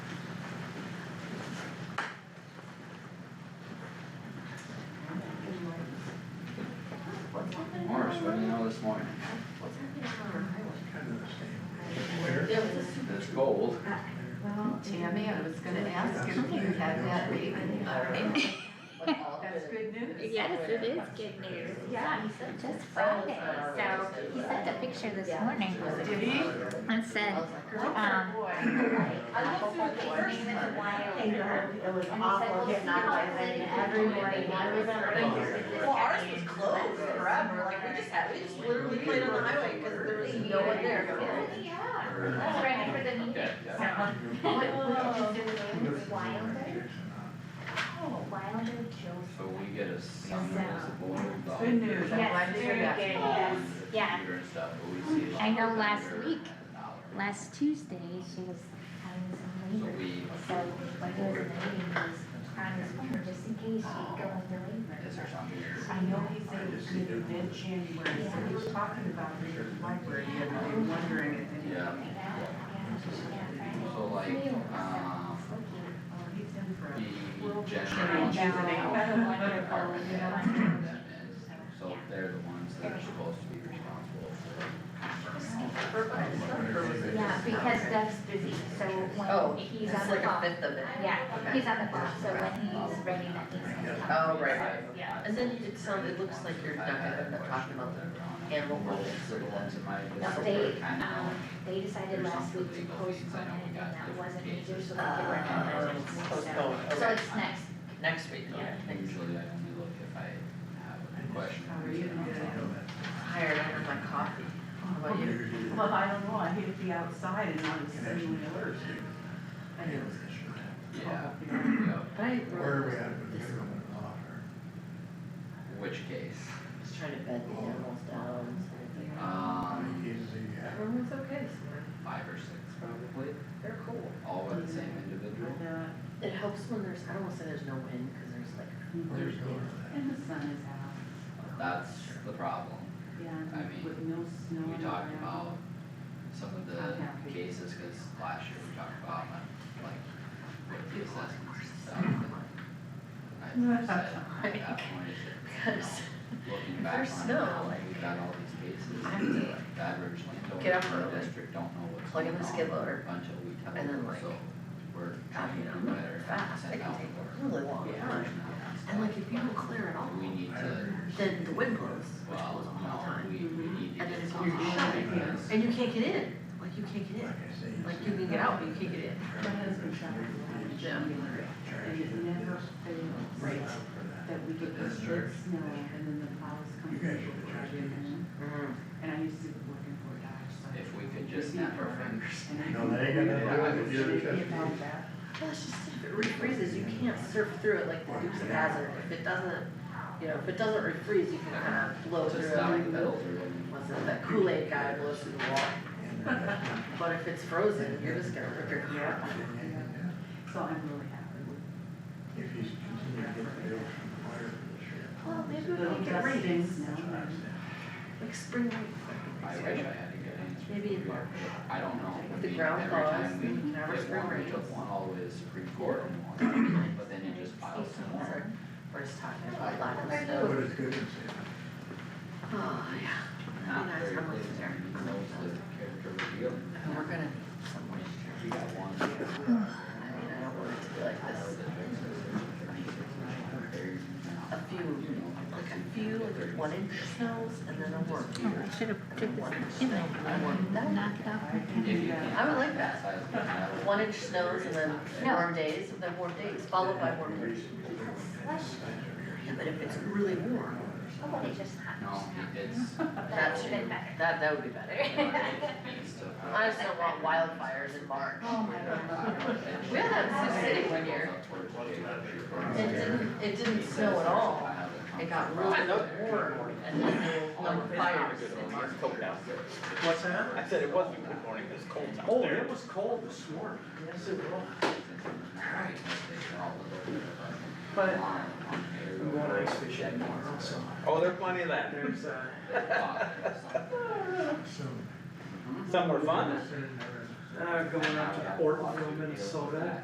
this morning. What's happening on our highway? Kind of the same. Where? There was a super. It's cold. Well, Tammy, I was gonna ask if you had that baby already. That's good news. Yes, it is good news, yeah, he said just Friday, so he sent a picture this morning Did he? and said, um, morning that And it was awful getting out of my bed every morning, I was Well, ours was closed forever, like, we just had, we just literally played on the highway, cause there was no one there. Yeah, ready for the meeting, Yeah, yeah. so. What- what- Wilder? Oh, Wilder Jones. So we get a summons as a board. dog. Good news, I'm Yes, glad to hear very that. good. Yeah. Computer and stuff, but we see a lot I know of last vendor week, and hour. Last Tuesday, she was having So some labor, we. So, when there was a meeting, he was on his phone, just in case she'd go into labor. Is there something I know he said it was gonna be mid January, so we were talking about it at the library, and we were wondering if any. Yeah. Like that, yeah, yeah, So like, uh, Friday. um, Smoking. Oh, he's in for a. the General general. juvenile. department heads, whatever that is. So they're the ones that are supposed to be responsible for. Yeah, because Doug's busy, so Oh, when he's it's on the like clock. a fifth of it. Yeah, Okay. he's on the clock, so when he's ready, that means he's coming. Oh, right, right. Yeah. And then it sounds, it looks like you're not gonna talking about the animal ordinance or the. No, they, um, they decided last week to postpone it, and that wasn't major, so they were not. Postpone, Uh, So okay, it's next, next week, okay, thanks. Usually I only look if I have a question. How are you? Hired under my coffee, how about you? Well, I don't know, I hate to be outside and not see anyone alert. I know. Yeah, You know, yeah, But I Where are we wrote at with this, the I government offer? which case? was trying to bed the animals down. Um, How many cases do you have? Everyone's okay, so five or six probably, they're cool. all with the same individual. I'm not- It helps when there's, I don't wanna say there's no wind, cause there's like, Where we going with that? And the sun is out, That's the problem. I yeah, mean, with no snow. We on the talked ground. about some of the cases, cause last year we talked about like, like, with the assessments and stuff. and I said, at that point, I said, you know, because, looking back There's on it snow, now, like- we've got all these cases, I have to, like, the average get up landowner in the early, district don't know what's plug going on in the skid loader, until we tell and them, then, like, so we're trying to you know, do better at fast, it sending out the can take word. a really long Yeah. time. And like, if you don't clear at all, We need to, then the wind blows, which blows well, all the no, time. we, we need to And get then some you're action shutting because And you can't get in, like you can't get Like in, I say, you like see you can it. get out, but you can't get in. My husband shot a Yeah. lot of deer, and it never fails Right. that we get this big snow and then the plows come You through and guys drive should have in. And Mhm. I used to be working for Dodge, so. if we could just snap our fingers. And I- No, that ain't got nothing to do with Should it, you're be just- about that. Well, it's just, if it refreezes, you can't surf through it like the Dukes of Hazard, if it doesn't, you know, if it doesn't refreeze, you can kind of blow through Just stop the pedal it. through and What's it, that Kool-Aid guy blows through the wall, And, uh, but if it's frozen, you're just gonna rip your car off. So I'm really happy with If he's continuing to get bills from the fire for Well, maybe the we can get dusting rain, snow the and- sheriff. like spring rain. I wish I had a good answer. Maybe in for you. March. I don't know. I The mean, ground every thaws, time we we can have our get spring one, we rains. took one all the way to the Supreme Court and one, but then it just piles some more. We're just talking about lack of But snow. it's good in San Oh, yeah, that'd be Not nice, very I'm close to with you there. being close to character reveal. And we're gonna need some rain. We got one. I mean, I don't want it to be like this, a few, like a few, like one inch snows and then a worm. oh, I should have took this, you know, That- knock it off. I can do that. I would like that. One inch snows and then warm days, and then warm days, followed by warm days. Yeah, but if it's really warm, oh, but it's just hot. No, it's. that's, Been better. that, that would be better. I just don't want wildfires in March. Oh, my God. We had that in Sioux City one year, it didn't, it didn't snow at all, it got really warm, and then there were like fires in March. What's that? I said it wasn't good morning, it was cold out Oh, there. it was cold this morning. Yes, it was. But. We want ice fishing tomorrow, so. Oh, there's plenty of that. There's, uh. Soon. Some were fun. Uh, going out to Ortonville, Minnesota,